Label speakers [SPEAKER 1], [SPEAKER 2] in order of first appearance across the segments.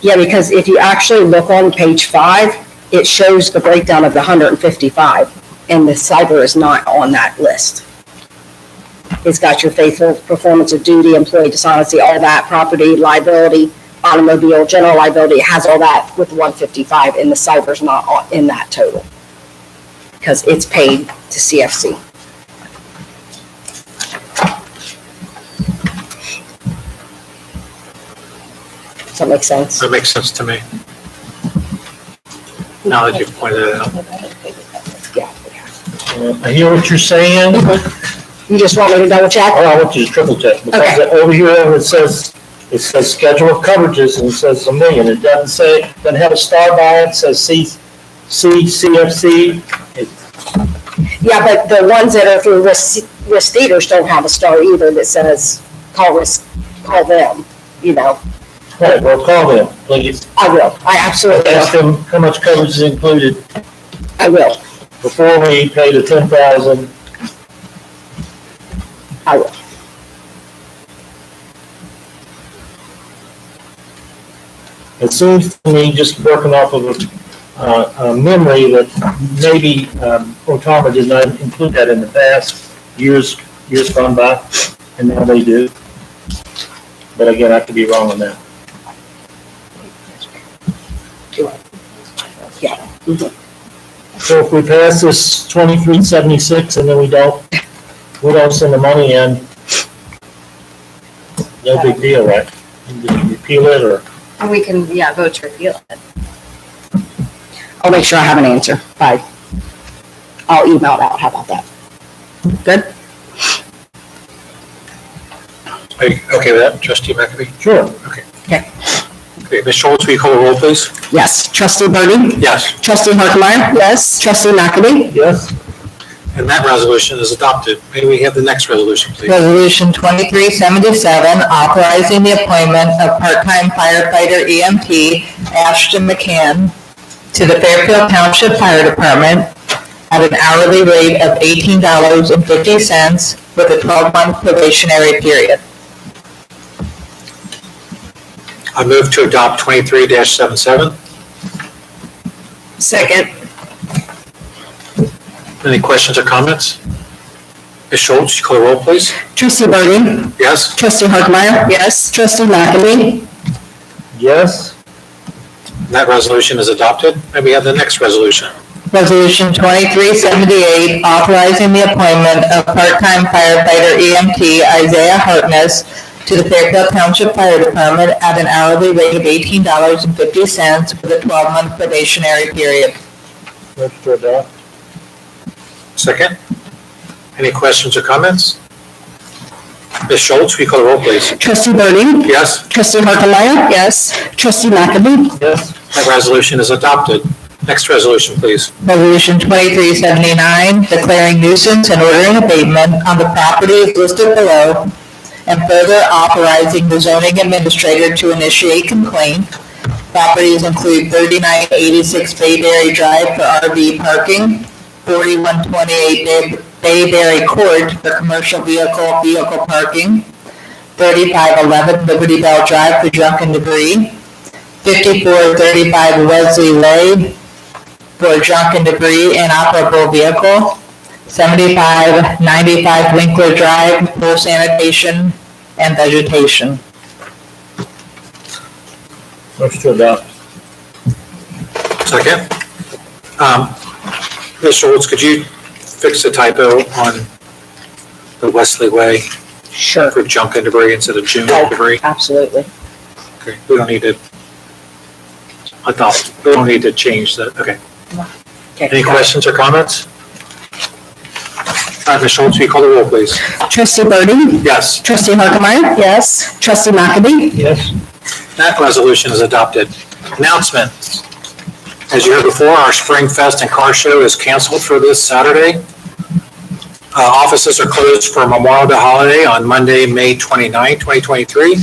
[SPEAKER 1] Yeah, because if you actually look on page five, it shows the breakdown of the hundred and fifty-five, and the cyber is not on that list. It's got your faithful performance of duty, employee dishonesty, all that, property liability, automobile, general liability, it has all that with one fifty-five, and the cyber's not on- in that total. Because it's paid to CFC. Does that make sense?
[SPEAKER 2] That makes sense to me. Now that you've pointed it out.
[SPEAKER 1] Yeah.
[SPEAKER 3] I hear what you're saying,
[SPEAKER 1] You just want me to double check?
[SPEAKER 3] all I want you to triple check, because over here, it says, it says schedule of coverages, and it says a million, it doesn't say, doesn't have a star by it, says C, C, CFC.
[SPEAKER 1] Yeah, but the ones that are through risk, risk theaters don't have a star either that says, call risk, call them, you know,
[SPEAKER 3] Right, well, call them, please,
[SPEAKER 1] I will, I absolutely
[SPEAKER 3] ask
[SPEAKER 1] will,
[SPEAKER 3] them how much coverage is included
[SPEAKER 1] I will,
[SPEAKER 3] before we pay the ten thousand.
[SPEAKER 1] I will.
[SPEAKER 3] It seems to me, just working off of a, uh, a memory, that maybe, um, Otama did not include that in the past, years, years gone by, and now they do. But again, I could be wrong on that. So if we pass this twenty-three seventy-six and then we don't, we don't send the money in, no big deal, right? You just Repeal it or?
[SPEAKER 4] And we can, yeah, vote to repeal it.
[SPEAKER 1] I'll make sure I have an answer, bye. I'll email it out, how about that? Good?
[SPEAKER 2] Are you okay with that, trustee McAfee?
[SPEAKER 3] Sure.
[SPEAKER 2] Okay, Ms. Schultz, will you call the roll, please?
[SPEAKER 1] Yes, trustee Burden?
[SPEAKER 2] Yes.
[SPEAKER 1] Trustee Harkemaier? Yes. Trustee McAdie?
[SPEAKER 3] Yes?
[SPEAKER 2] And that resolution is adopted. May we have the next resolution, please?
[SPEAKER 5] Resolution 2377, authorizing the appointment of part-time firefighter EMT Ashton McCann to the Fairfield Township Fire Department at an hourly rate of $18.50 with a 12-month probationary period.
[SPEAKER 2] I move to adopt twenty-three 77
[SPEAKER 1] Second.
[SPEAKER 2] Any questions or comments? Ms. Schultz, you call the roll, please?
[SPEAKER 1] Trustee Burden?
[SPEAKER 2] Yes?
[SPEAKER 1] Trustee Harkemaier? Yes. Trustee McAdie?
[SPEAKER 3] Yes?
[SPEAKER 2] And That resolution is adopted. May we have the next resolution?
[SPEAKER 5] Resolution 2378, authorizing the appointment of part-time firefighter EMT Isaiah Hartness to the Fairfield Township Fire Department at an hourly rate of $18.50 with a 12-month probationary period.
[SPEAKER 3] Move to adopt?
[SPEAKER 2] Second? Any questions or comments? Ms. Schultz, will you call the roll, please?
[SPEAKER 1] Trustee Burden?
[SPEAKER 2] Yes?
[SPEAKER 1] Trustee Harkemaier? Yes. Trustee McAdie?
[SPEAKER 3] Yes?
[SPEAKER 2] That resolution is adopted. Next resolution, please.
[SPEAKER 5] Resolution 2379, declaring nuisance and ordering abatement on the properties listed below, and further authorizing the zoning administrator to initiate complaint. Properties include 3986 Bayberry Drive for RV parking, 4128 Bay- Bayberry Court for commercial vehicle, vehicle parking, 3511 Liberty Bell Drive for junk and debris, 5435 Wesley Lane for junk and debris and operable vehicle. Seventy-five ninety-five Winkler Drive, pool sanitation and vegetation.
[SPEAKER 3] Move to adopt.
[SPEAKER 2] Second. Um, Ms. Schultz, could you fix the typo on the Wesley Way
[SPEAKER 1] Sure,
[SPEAKER 2] for junk and debris instead of June
[SPEAKER 1] Oh.
[SPEAKER 2] debris?
[SPEAKER 1] absolutely.
[SPEAKER 2] Okay, we don't need to adopt, we don't need to change that, okay.
[SPEAKER 1] Okay.
[SPEAKER 2] Any questions or comments? All right, Ms. Schultz, will you call the roll, please?
[SPEAKER 1] Trustee Burden?
[SPEAKER 2] Yes,
[SPEAKER 1] Trustee Harkemaier? Yes. Trustee McAdie?
[SPEAKER 3] Yes?
[SPEAKER 2] that resolution is adopted. Announcements. As you heard before, our Spring Fest and Car Show is canceled for this Saturday. Uh, Offices are closed for Memorial Day holiday on Monday, May 29, 2023.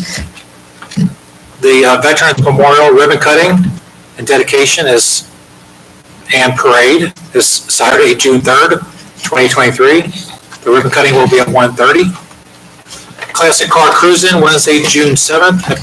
[SPEAKER 2] The uh, Veterans Memorial ribbon cutting and dedication is, and parade is Saturday, June 3rd, 2023. The ribbon cutting will be at 1:30. Classic Car Cruising, Wednesday, June 7th at